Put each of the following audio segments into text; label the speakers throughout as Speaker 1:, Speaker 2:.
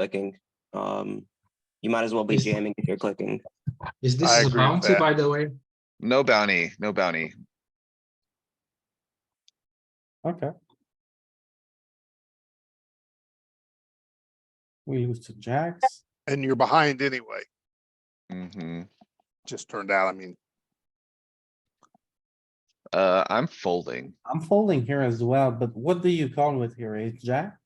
Speaker 1: clicking. Um, you might as well be
Speaker 2: Yes.
Speaker 1: jamming if you're clicking.
Speaker 2: Is this
Speaker 3: I
Speaker 2: a
Speaker 3: agree with
Speaker 2: bounty,
Speaker 3: that.
Speaker 2: by the way?
Speaker 3: No bounty, no bounty.
Speaker 4: Okay. We lose to jacks.
Speaker 5: and you're behind anyway.
Speaker 3: hmm
Speaker 5: Just turned out, I mean,
Speaker 3: Uh, I'm folding.
Speaker 4: I'm folding here as well, but what do you call with here? Ace jack?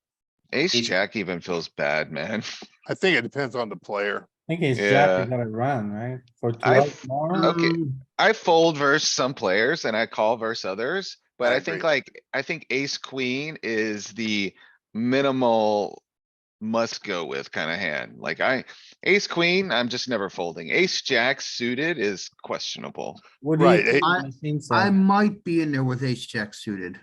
Speaker 3: Ace
Speaker 1: Ace-
Speaker 3: jack even feels bad, man.
Speaker 5: I think it depends on the player.
Speaker 4: I think ace jack,
Speaker 3: Yeah.
Speaker 4: you gotta run, right? For
Speaker 3: I-
Speaker 4: twelve more,
Speaker 3: Okay.
Speaker 6: Hmm,
Speaker 2: Um,
Speaker 3: I fold versus some players and I call versus others, but
Speaker 5: I
Speaker 3: I think
Speaker 5: agree.
Speaker 3: like, I think ace queen is the minimal. Must go with kind of hand. Like I, ace queen, I'm just never folding. Ace jack suited is questionable.
Speaker 4: what do
Speaker 5: Right,
Speaker 4: you?
Speaker 5: eh,
Speaker 4: call the machine
Speaker 6: I
Speaker 4: said?
Speaker 6: might be in there with ace jack suited.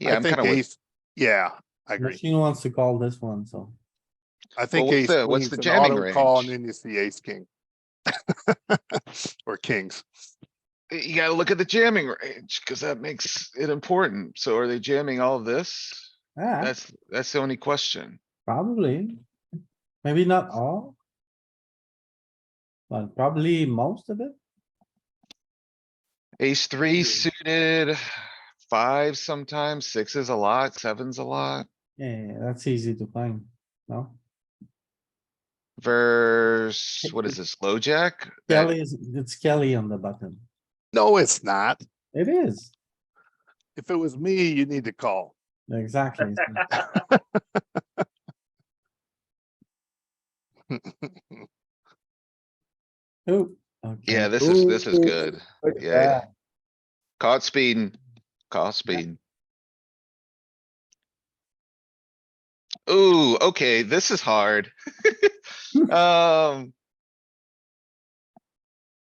Speaker 3: Yeah,
Speaker 5: I
Speaker 3: I'm
Speaker 5: think
Speaker 3: kinda with,
Speaker 5: ace, yeah, I agree.
Speaker 4: Machine wants to call this one, so.
Speaker 5: I think
Speaker 3: what's
Speaker 5: ace
Speaker 3: the- what's
Speaker 5: queen's
Speaker 3: the
Speaker 5: an
Speaker 3: jamming
Speaker 5: auto call and
Speaker 3: range?
Speaker 5: then it's the ace king. Or kings.
Speaker 3: you gotta look at the jamming range, cuz that makes it important. So are they jamming all of this?
Speaker 4: Yeah,
Speaker 3: That's, that's the only question.
Speaker 4: Ah, probably. Maybe not all. But probably most of it.
Speaker 3: Ace
Speaker 4: Hmm.
Speaker 3: three suited, five sometimes, six is a lot, seven's a lot.
Speaker 4: Yeah, that's easy to find, no?
Speaker 3: Verse, what is this, low jack? That-
Speaker 4: Kelly is, it's Kelly on the button.
Speaker 5: No, it's not.
Speaker 4: It is,
Speaker 5: If it was me, you need to call.
Speaker 4: exactly. so- Oh, okay.
Speaker 3: Yeah, this is, this is
Speaker 4: Ooh,
Speaker 3: good.
Speaker 4: look at
Speaker 3: yeah.
Speaker 4: that.
Speaker 3: Caught speeding, caught speeding. Ooh, okay, this is hard. Um,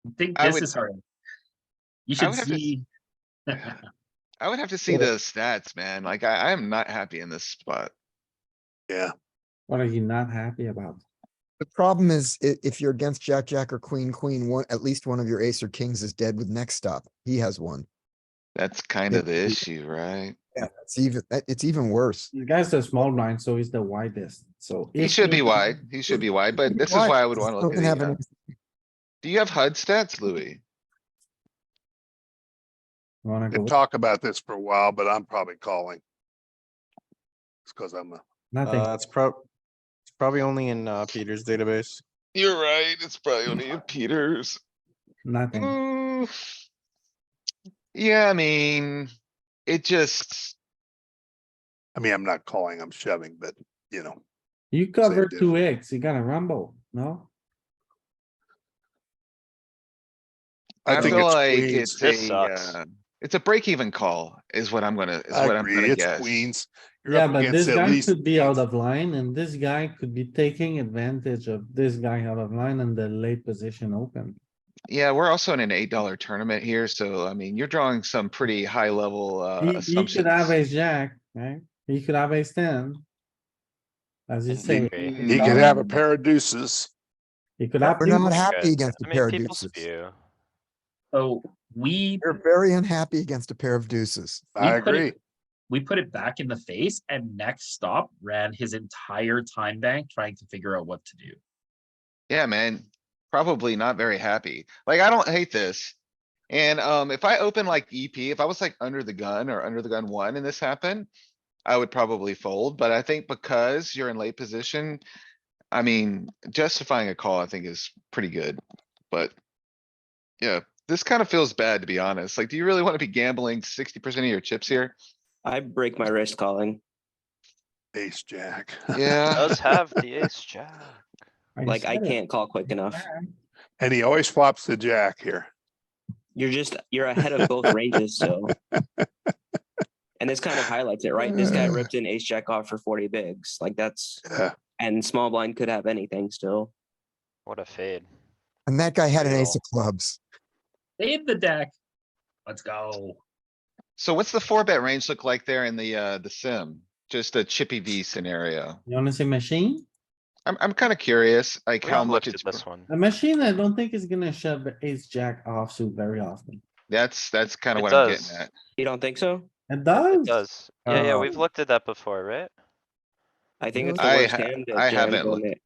Speaker 7: I think
Speaker 3: I
Speaker 7: this
Speaker 3: would-
Speaker 7: is hard. You
Speaker 3: I
Speaker 7: should
Speaker 3: would have to s-
Speaker 7: see.
Speaker 3: I would have to see
Speaker 4: Yeah.
Speaker 3: the stats, man. Like I, I am not happy in this spot.
Speaker 5: Yeah,
Speaker 4: What are you not happy about?
Speaker 8: The problem is i- if you're against Jack, Jack or Queen, Queen, one, at least one of your ace or kings is dead with next stop. He has one.
Speaker 3: That's kind of the
Speaker 8: Yeah.
Speaker 3: issue, right?
Speaker 8: Yeah. It's even, that- it's even worse.
Speaker 4: The guy's the small blind, so he's the widest, so.
Speaker 3: He
Speaker 4: if
Speaker 3: should be
Speaker 4: you-
Speaker 3: wide. He should be wide, but this is why I would wanna look at
Speaker 8: Doesn't have
Speaker 3: the, uh,
Speaker 8: an-
Speaker 3: Do you have HUD stats, Louis?
Speaker 4: You Wanna go,
Speaker 5: could talk about this for a while, but I'm probably calling. It's cuz I'm a,
Speaker 4: nothing,
Speaker 9: Uh, it's prob, it's probably only in uh, Peter's database.
Speaker 3: You're right. It's probably only in Peters.
Speaker 4: nothing.
Speaker 3: Mm. Yeah, I mean, it just,
Speaker 5: I mean, I'm not calling, I'm shoving, but you know,
Speaker 4: You cover
Speaker 5: dude.
Speaker 4: two X, you gotta rumble, no?
Speaker 5: I
Speaker 3: I
Speaker 5: think
Speaker 3: feel
Speaker 5: it's
Speaker 3: like
Speaker 5: queens.
Speaker 3: it's
Speaker 7: This
Speaker 3: a,
Speaker 7: sucks.
Speaker 3: uh, it's a break even call is what I'm gonna, is
Speaker 5: I
Speaker 3: what I'm
Speaker 5: agree,
Speaker 3: gonna
Speaker 5: it's
Speaker 3: guess.
Speaker 5: queens. You're
Speaker 4: Yeah,
Speaker 5: up
Speaker 4: but
Speaker 5: against
Speaker 4: this
Speaker 5: at
Speaker 4: guy
Speaker 5: least
Speaker 4: could be
Speaker 5: kings.
Speaker 4: out of line and this guy could be taking advantage of this guy out of line and the late position open.
Speaker 3: Yeah, we're also in an eight dollar tournament here, so I mean, you're drawing some pretty high level, uh,
Speaker 4: He, he
Speaker 3: assumptions.
Speaker 4: could have ace jack, right? He could have ace ten. As you
Speaker 7: And
Speaker 4: say.
Speaker 7: maybe-
Speaker 10: Mm-hmm.
Speaker 5: He could have a pair of deuces.
Speaker 4: He could have.
Speaker 8: We're
Speaker 4: deuce.
Speaker 8: not happy against a
Speaker 10: I
Speaker 8: pair
Speaker 10: mean,
Speaker 8: of
Speaker 10: people's
Speaker 8: deuces.
Speaker 10: view. Oh,
Speaker 7: So we,
Speaker 8: We're very unhappy against a pair of deuces.
Speaker 5: I
Speaker 7: We put it-
Speaker 5: agree.
Speaker 7: we put it back in the face and next stop ran his entire time bank trying to figure out what to do.
Speaker 3: Yeah, man, probably not very happy. Like, I don't hate this. And, um, if I open like EP, if I was like under the gun or under the gun one and this happened, I would probably fold, but I think because you're in late position, I mean, justifying a call, I think is pretty good, but yeah, this kind of feels bad, to be honest. Like, do you really want to be gambling sixty percent of your chips here?
Speaker 1: I break my wrist calling.
Speaker 5: Ace, jack.
Speaker 3: Yeah,
Speaker 10: Does have the ace jack.
Speaker 1: Like I
Speaker 4: said it.
Speaker 1: can't call quick enough.
Speaker 5: And he always flops the jack here.
Speaker 1: You're just, you're ahead of both ranges, so. And this kind of highlights it, right? This guy ripped an ace jack off for forty bigs, like that's,
Speaker 5: Yeah,
Speaker 1: and small blind could have anything still.
Speaker 10: What a fade.
Speaker 8: And that guy had an ace
Speaker 10: Real.
Speaker 8: of clubs.
Speaker 7: Save the deck. Let's go.
Speaker 3: so what's the four bet range look like there in the, uh, the sim? Just a chippy V scenario.
Speaker 4: You wanna say machine?
Speaker 3: I'm, I'm kinda curious, like
Speaker 10: We
Speaker 3: how
Speaker 10: haven't
Speaker 3: much
Speaker 10: looked
Speaker 3: it's,
Speaker 10: at
Speaker 3: br-
Speaker 10: this one.
Speaker 4: A machine, I don't think is gonna shove the ace jack offsuit very often.
Speaker 3: that's, that's kinda
Speaker 10: It
Speaker 3: what I'm getting
Speaker 10: does.
Speaker 3: at.
Speaker 1: You don't think so?
Speaker 4: It
Speaker 10: It
Speaker 4: does.
Speaker 8: Oh.
Speaker 10: does. Yeah, yeah,
Speaker 4: Uh,
Speaker 10: we've looked at that before, right?
Speaker 1: I think it's the
Speaker 3: I
Speaker 1: worst
Speaker 3: ha-
Speaker 1: hand that
Speaker 3: I
Speaker 1: Jared
Speaker 3: haven't looked-
Speaker 1: Bonnet-